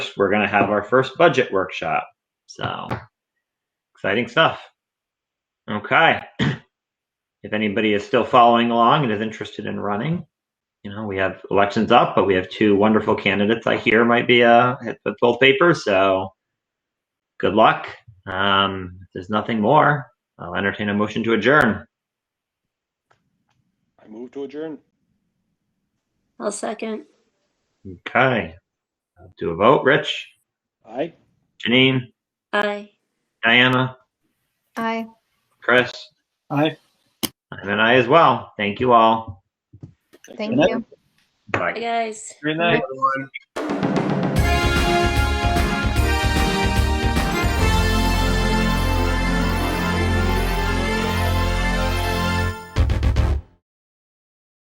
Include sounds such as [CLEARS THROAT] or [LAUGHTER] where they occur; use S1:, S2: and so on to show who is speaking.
S1: 1st, we're going to have our first budget workshop. So exciting stuff. Okay. [CLEARS THROAT] if anybody is still following along and is interested in running, you know, we have elections up, but we have two wonderful candidates I hear might be uh, hit with both papers. So good luck. Um, if there's nothing more, I'll entertain a motion to adjourn.
S2: I move to adjourn.
S3: I'll second.
S1: Okay. Do a vote. Rich,
S2: Aye.
S1: Janine,
S3: Aye.
S1: Diana,
S4: Aye.
S1: Chris,
S2: Aye.
S1: and then I as well. Thank you all.
S4: Thank you.
S1: Bye.
S3: Hi, guys.
S2: Good night.